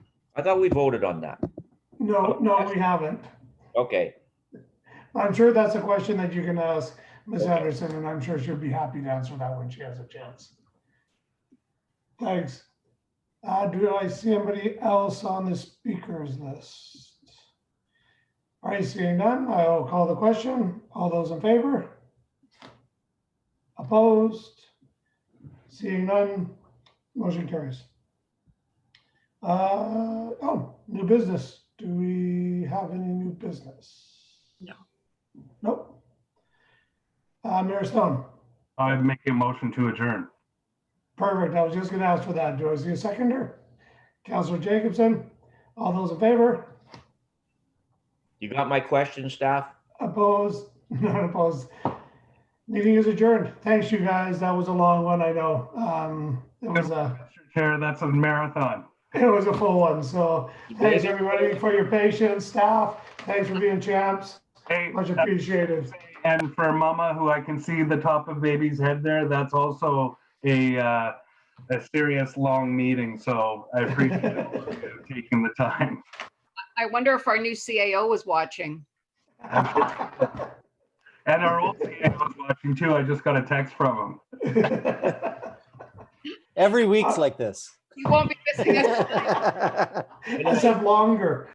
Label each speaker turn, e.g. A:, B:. A: I thought we voted on that.
B: No, no, we haven't.
A: Okay,
B: I'm sure that's a question that you can ask Ms. Anderson, and I'm sure she'll be happy to answer that when she has a chance. Thanks. Uh, do I see anybody else on the speakers list? All right, seeing none, I'll call the question. All those in favor? Opposed? Seeing none, motion carries. Uh, oh, new business. Do we have any new business? Nope. Uh, Mayor Stone,
C: I'd make a motion to adjourn.
B: perfect. I was just gonna ask for that. Do I see a seconder? Counselor Jacobson, all those in favor?
A: you got my question, staff?
B: Opposed? Not opposed. Meeting is adjourned. Thanks, you guys. That was a long one, I know. Um, it was a,
C: Mr. Chair, that's a marathon.
B: it was a full one, so thanks, everybody, for your patience, staff. Thanks for being champs.
C: Hey, uh,
B: Much appreciated.
C: and for Mama, who I can see the top of baby's head there, that's also a, uh, a serious, long meeting, so I appreciate you taking the time.
D: I wonder if our new CAO was watching.
C: And our old CEO was watching too. I just got a text from
E: Every week's like this.
D: You won't be missing us.
B: Except longer.